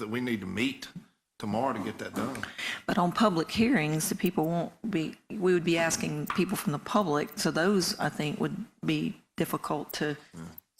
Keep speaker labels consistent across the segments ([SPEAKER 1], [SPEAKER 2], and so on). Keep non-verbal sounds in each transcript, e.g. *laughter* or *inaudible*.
[SPEAKER 1] that we need to meet tomorrow to get that done.
[SPEAKER 2] But on public hearings, the people won't be, we would be asking people from the public, so those, I think, would be difficult to,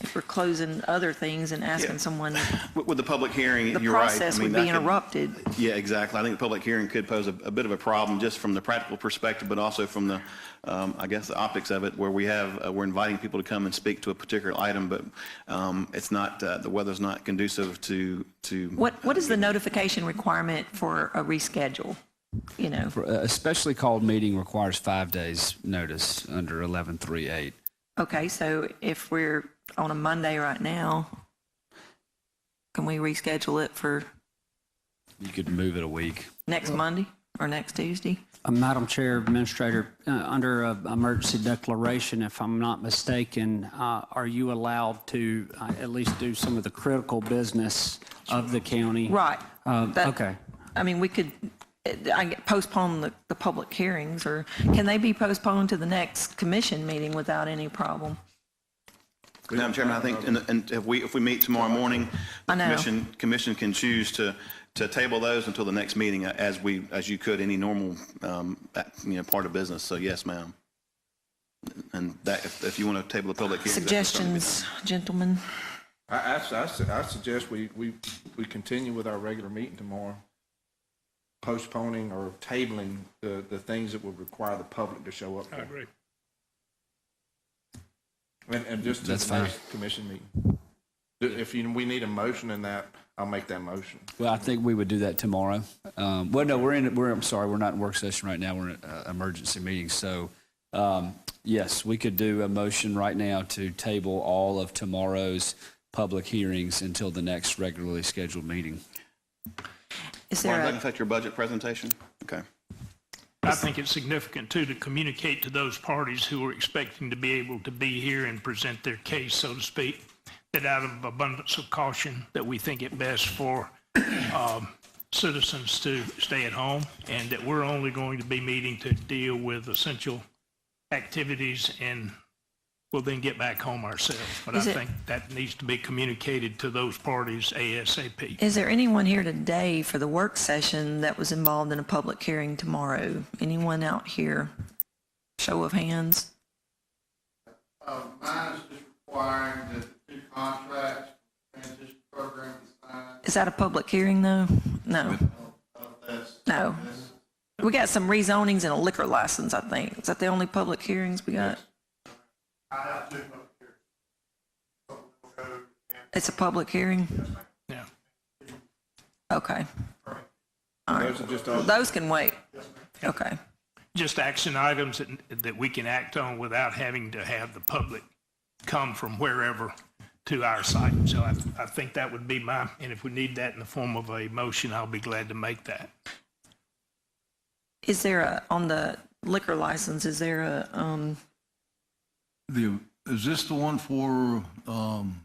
[SPEAKER 2] if we're closing other things and asking someone,
[SPEAKER 3] With with the public hearing,
[SPEAKER 2] the
[SPEAKER 3] *laughs* you're right. I
[SPEAKER 2] process
[SPEAKER 3] mean,
[SPEAKER 2] would
[SPEAKER 3] that
[SPEAKER 2] be
[SPEAKER 3] could-
[SPEAKER 2] interrupted.
[SPEAKER 3] Yeah, exactly. I think the public hearing could pose a a bit of a problem just from the practical perspective, but also from the, um, I guess, the optics of it, where we have, uh, we're inviting people to come and speak to a particular item, but um, it's not, uh, the weather's not conducive to, to.
[SPEAKER 2] What, what is the notification requirement for a reschedule? You know,
[SPEAKER 4] A specially uh, called meeting requires five days' notice under 1138.
[SPEAKER 2] okay, so if we're on a Monday right now, can we reschedule it for
[SPEAKER 4] You could move it a week.
[SPEAKER 2] next Monday or next Tuesday?
[SPEAKER 5] Uh, Madam Chair, Administrator, uh, under uh, emergency declaration, if I'm not mistaken, uh, are you allowed to uh, at least do some of the critical business of the county?
[SPEAKER 2] Right.
[SPEAKER 5] Um,
[SPEAKER 2] That-
[SPEAKER 5] okay.
[SPEAKER 2] I mean, we could uh, I get- postpone the, the public hearings, or can they be postponed to the next commission meeting without any problem?
[SPEAKER 3] Madam Chairman, I think, and- and if we, if we meet tomorrow morning, the
[SPEAKER 2] I know.
[SPEAKER 3] commission, commission can choose to, to table those until the next meeting, uh, as we, as you could any normal, um, uh, you know, part of business. So yes, ma'am. And that, if if you want to table the public hearing. that's something to be done.
[SPEAKER 2] Suggestions, gentlemen?
[SPEAKER 1] I, I su- I, su- I suggest we, we, we continue with our regular meeting tomorrow, postponing or tabling the, the things that would require the public to show up. I agree. And, and just to
[SPEAKER 4] That's
[SPEAKER 1] the
[SPEAKER 4] fine.
[SPEAKER 1] next commission meeting. If if you, we need a motion in that, I'll make that motion.
[SPEAKER 4] Well, I think we would do that tomorrow. Um, well, no, we're in, we're, I'm sorry, we're not in work session right now. We're in an emergency meeting. So, um, yes, we could do a motion right now to table all of tomorrow's public hearings until the next regularly scheduled meeting.
[SPEAKER 2] Is
[SPEAKER 3] Laura,
[SPEAKER 2] there
[SPEAKER 3] does that
[SPEAKER 2] a,
[SPEAKER 3] affect your budget presentation? Okay.
[SPEAKER 6] I think it's significant, too, to communicate to those parties who are expecting to be able to be here and present their case, so to speak, that out of abundance of caution, that we think it best for um, citizens to stay at home, and that we're only going to be meeting to deal with essential activities, and we'll then get back home ourselves. But I
[SPEAKER 2] Is it-
[SPEAKER 6] think that needs to be communicated to those parties ASAP.
[SPEAKER 2] is there anyone here today for the work session that was involved in a public hearing tomorrow? Anyone out here? Show of hands?
[SPEAKER 7] Uh, mine is just requiring that the two contracts, transition program is signed,
[SPEAKER 2] Is that a public hearing, though? No,
[SPEAKER 7] uh, that's,
[SPEAKER 2] no. We got some rezonings and a liquor license, I think. Is that the only public hearings we got?
[SPEAKER 7] I have two up here. Code and
[SPEAKER 2] It's a public hearing?
[SPEAKER 6] Yeah.
[SPEAKER 2] Okay.
[SPEAKER 1] Those are just all,
[SPEAKER 2] Those can wait. Okay.
[SPEAKER 6] just action items that, that we can act on without having to have the public come from wherever to our site. So I, I think that would be my, and if we need that in the form of a motion, I'll be glad to make that.
[SPEAKER 2] Is there a, on the liquor license, is there a, um,
[SPEAKER 8] The, is this the one for, um,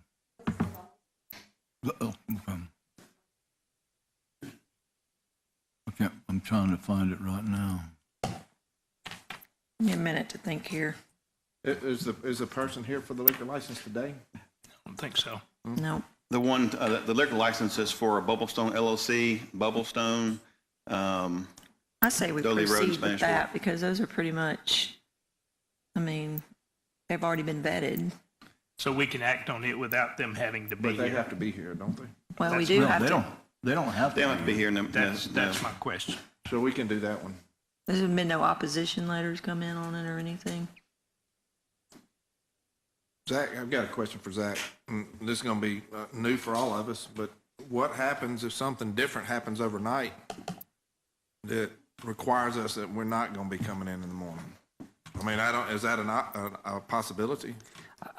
[SPEAKER 8] the- oh, okay. Okay, I'm trying to find it right now.
[SPEAKER 2] give me a minute to think here?
[SPEAKER 1] i- is the, is the person here for the liquor license today?
[SPEAKER 6] I don't think so.
[SPEAKER 2] No.
[SPEAKER 3] The one, uh, the liquor license is for Bubblestone LLC, Bubblestone. um,
[SPEAKER 2] I say we
[SPEAKER 3] Dudley Road and
[SPEAKER 2] proceed with
[SPEAKER 3] Spanish
[SPEAKER 2] that
[SPEAKER 3] Fork.
[SPEAKER 2] because those are pretty much, I mean, they've already been vetted.
[SPEAKER 6] So we can act on it without them having to be
[SPEAKER 1] But they
[SPEAKER 6] here.
[SPEAKER 1] have to be here, don't they?
[SPEAKER 2] Well, we
[SPEAKER 6] That's
[SPEAKER 2] do
[SPEAKER 8] No,
[SPEAKER 2] have
[SPEAKER 8] they
[SPEAKER 2] to,
[SPEAKER 8] don't, they don't have
[SPEAKER 3] They don't have
[SPEAKER 8] to.
[SPEAKER 3] to be here. no- no-
[SPEAKER 6] That's, that's
[SPEAKER 3] no.
[SPEAKER 6] my question.
[SPEAKER 1] So we can do that one.
[SPEAKER 2] there's been no opposition letters come in on it or anything.
[SPEAKER 1] Zach, I've got a question for Zach. Mm, This is going to be uh, new for all of us, but what happens if something different happens overnight that requires us that we're not going to be coming in in the morning? I mean, I don't, is that an, op- a, a possibility?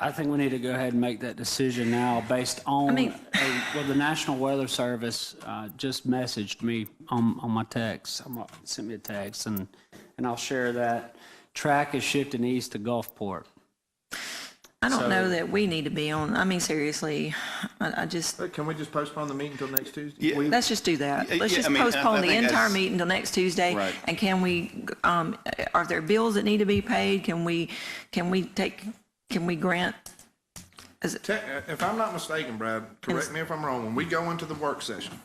[SPEAKER 5] I think we need to go ahead and make that decision now based on,
[SPEAKER 2] mean-
[SPEAKER 5] a- well, the National Weather Service uh, just messaged me on, on my text, I'm not- sent me a text, and, and I'll share that. Track is shifting east to Gulfport.
[SPEAKER 2] I don't know that we need to be on, I mean, seriously, I, I just,
[SPEAKER 1] But Can we just postpone the meeting until next Tuesday?
[SPEAKER 3] Yeah.
[SPEAKER 2] Let's just do that.
[SPEAKER 3] Yeah,
[SPEAKER 2] Let's
[SPEAKER 3] yeah,
[SPEAKER 2] just
[SPEAKER 3] I mean, I- I
[SPEAKER 2] postpone the
[SPEAKER 3] think
[SPEAKER 2] entire
[SPEAKER 3] that's-
[SPEAKER 2] meeting till next Tuesday.
[SPEAKER 3] Right.
[SPEAKER 2] And can we, um, are there bills that need to be paid? Can we, can we take, can we grant? Is it,
[SPEAKER 1] Te- If I'm not mistaken, Brad, correct me if I'm wrong, when we go into the work session,